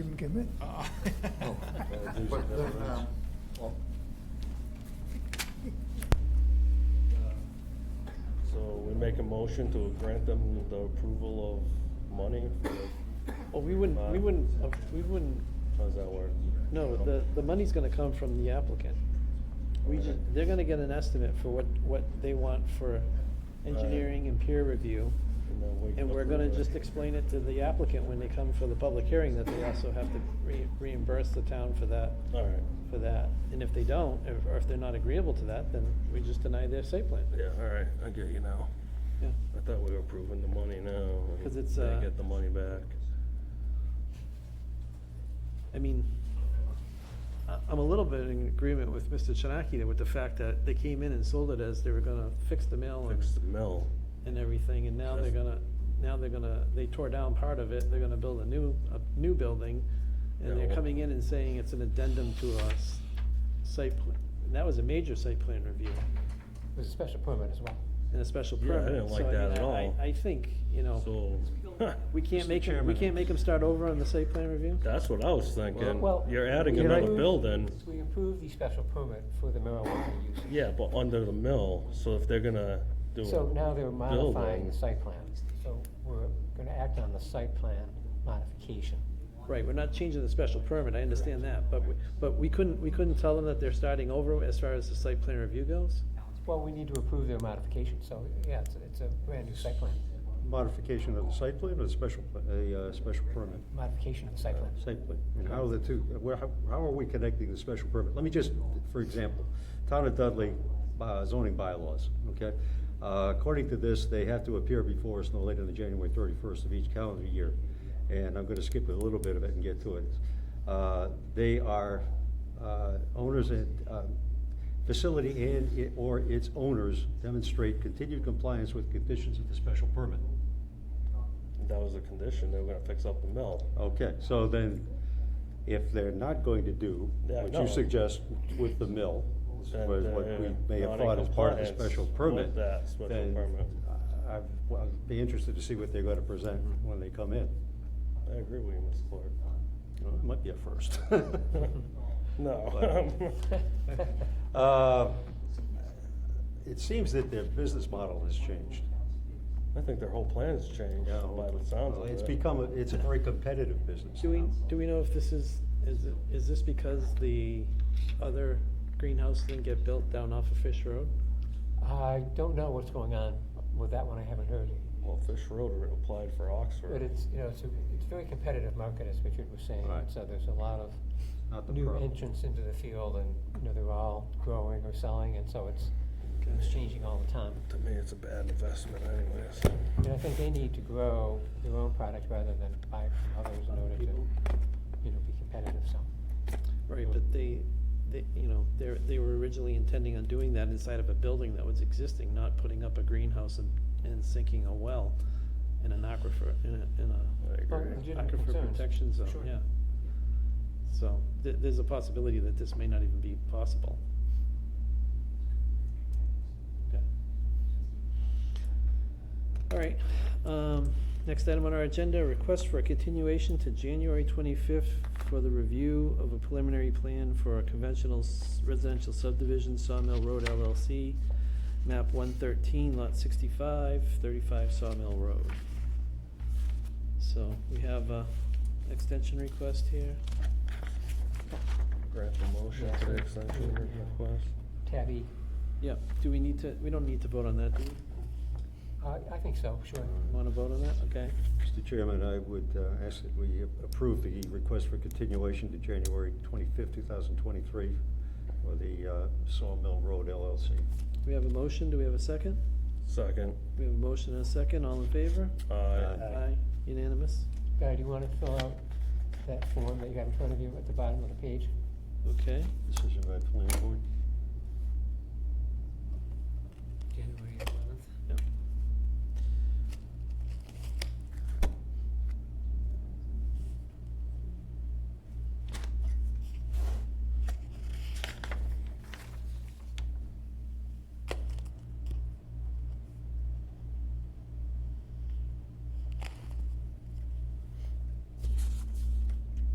didn't come in. But then, um, well, So we make a motion to grant them the approval of money for, Well, Oh, we wouldn't, we Uh, wouldn't, uh, we wouldn't, how's that work? no, the, the money's gonna come from the applicant. We just, they're gonna get an estimate for what, what they want for engineering and peer review. And then we And we're gonna approve it. just explain it to the applicant when they come for the public hearing, that they also have to re- reimburse the town for that, All right, for that. And if they don't, if- or if they're not agreeable to that, then we just deny their site plan. yeah, all right, I get you now. Yeah. I thought we were approving the money now. and 'Cause it's, they uh, Get the money back. I mean, I- I'm a little bit in agreement with Mr. Chinaki there with the fact that they came in and sold it as they were gonna fix the mill and, Fix the mill. and everything, and now they're That's- gonna, now they're gonna, they tore down part of it, they're gonna build a new, a new building, Yeah, and they're well- coming in and saying it's an addendum to a s- site plan, and that was a major site plan review there's a special permit as well. and a special Yeah, I permit. didn't like So, I that mean, at I- all. I, I think, you know, So, we can't Mr. make, 'em- we Chairman, can't make them start over on the site plan review? That's what I was thinking. Well, You're adding we another approved- building. We approved the special permit for the marijuana use. Yeah, but under the mill, so if they're gonna do. So now they're modifying building. the site plan. So we're gonna act on the site plan modification. Right, we're not changing the special permit, I understand that, but, we- but we couldn't, we couldn't tell them that they're starting over as far as the site plan review goes? Well, we need to approve their modification, so, yeah, it's, it's a brand new site plan, Modification of the site plan or the special, pla- a uh, special permit? modification of the site plan. Site plan. I mean, how are the two, where- how how are we connecting the special permit? Let me just, for example, Town of Dudley uh, zoning bylaws, okay? Uh, According to this, they have to appear before us no later than January thirty-first of each calendar year. And I'm gonna skip a little bit of it and get to it. Uh, They are uh, owners and, uh, facility and i- or its owners demonstrate continued compliance with conditions of the special permit. That was a condition, they were gonna fix up the mill. Okay, so then, if they're not going to do Yeah, what no. you suggest with the mill, That uh, was what they're we may not have in thought as part of the compliance special with permit, that special then permit. I- I'd well, I'd be interested to see what they're gonna present Mm-hmm. when they come in. I agree with you, Ms. Clark. Well, It might be a first. No. Uh, It seems that their business model has changed. I think their whole plan's changed Yeah, by the sounds of it. It's become, a- it's a very competitive business. Do we, do we know if this is, is, it- is this because the other greenhouse didn't get built down off of Fish Road? I don't know what's going on with that one, I haven't heard. Well, Fish Road re- applied for Oxford. But it's, you know, it's a, it's a very competitive market, as Richard was saying, Right. so there's a lot of Not the new problem. entrants into the field, and, you know, they're all growing or selling, and so it's, it's changing all the time. To me, it's a bad investment anyways. And I think they need to grow their own product rather than buy it from others in order to, you know, be competitive, so. Right, but they, they, you know, they're, they were originally intending on doing that inside of a building that was existing, not putting up a greenhouse and, and sinking a well in an aquifer, in a, in a I Well, agree. legitimate aquifer concerns. protection zone, Sure. yeah. So, th- there's a possibility that this may not even be possible. Okay. All right, um, next item on our agenda, request for a continuation to January twenty-fifth for the review of a preliminary plan for a conventional s- residential subdivision Sawmill Road LLC, map one thirteen, lot 65, 35 Sawmill Road. So we have a extension request here. Grant the motion to the extension request. Tabby, Yeah, do we need to, we don't need to vote on that, do I, I think so, sure. Mm. we? Want to vote on that? Okay. Mr. Chairman, I would uh, ask that we approve the request for continuation to January 25th, 2023 for the uh, Sawmill Road LLC. We have a motion, do we have a second? Second. We have a motion and a second, all in favor? Aye. Aye, unanimous? Guy, do you wanna fill out that form that you have in front of you at the bottom of the page? Okay, Decision by the planning board.